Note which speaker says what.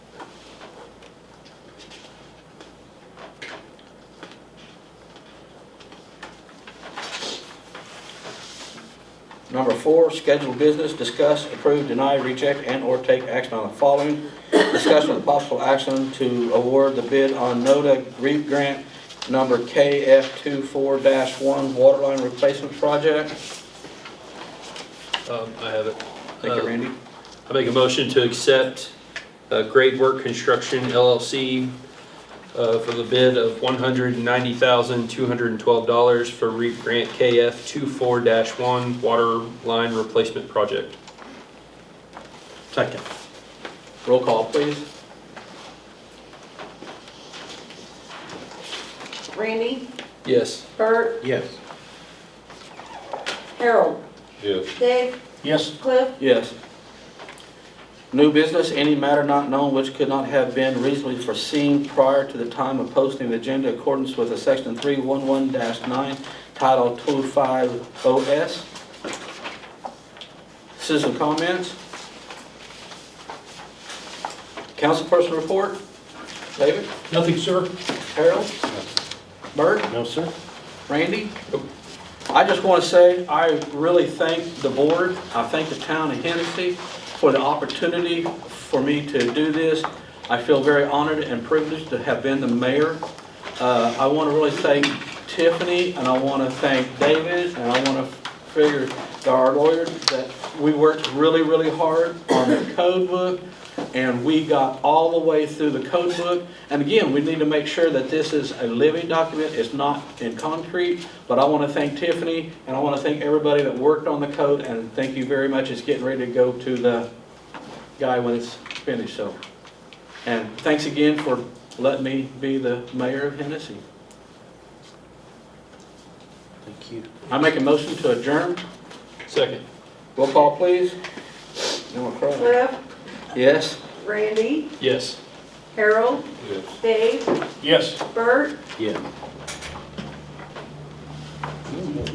Speaker 1: Number four, scheduled business, discuss, approve, deny, reject, and/or take action on the following. Discussion with possible action to award the bid on NODA REAP grant number KF24-1 Waterline Replacement Project.
Speaker 2: Um, I have it.
Speaker 1: Thank
Speaker 2: Uh,
Speaker 1: you, Randy.
Speaker 2: I make a motion to accept uh, Grade Work Construction LLC uh, for the bid of $190,212 for REAP Grant KF 24-1 Water Line Replacement Project.
Speaker 1: Second. Roll call, please.
Speaker 3: Randy,
Speaker 2: Yes.
Speaker 3: Bert,
Speaker 4: Yes.
Speaker 3: Harold,
Speaker 5: yes,
Speaker 3: Dave,
Speaker 4: Yes.
Speaker 3: Cliff,
Speaker 1: Yes. New business, any matter not known which could not have been reasonably foreseen prior to the time of posting the agenda in accordance with the section 311-9 title 250S. Citizen comments? Councilperson report? David?
Speaker 4: Nothing, sir?
Speaker 1: Harold? Bert?
Speaker 4: No, sir.
Speaker 1: Randy? I just want to say, I really thank the board, I thank the town of Hennessy for the opportunity for me to do this. I feel very honored and privileged to have been the mayor. Uh, I want to really thank Tiffany, and I want to thank David, and I want to figure, our lawyers, that we worked really, really hard on the code book, and we got all the way through the code book. And again, we need to make sure that this is a living document, it's not in concrete, but I want to thank Tiffany, and I want to thank everybody that worked on the code, and thank you very much, it's getting ready to go to the guy when it's finished, so. And thanks again for letting me be the mayor of Hennessy.
Speaker 4: Thank you.
Speaker 1: I make a motion to adjourn,
Speaker 2: Second.
Speaker 1: roll call please. No more crying.
Speaker 3: Cliff,
Speaker 1: Yes?
Speaker 3: Randy,
Speaker 2: Yes.
Speaker 3: Harold,
Speaker 5: yes.
Speaker 3: Dave,
Speaker 4: Yes.
Speaker 3: Bert,
Speaker 4: Yeah.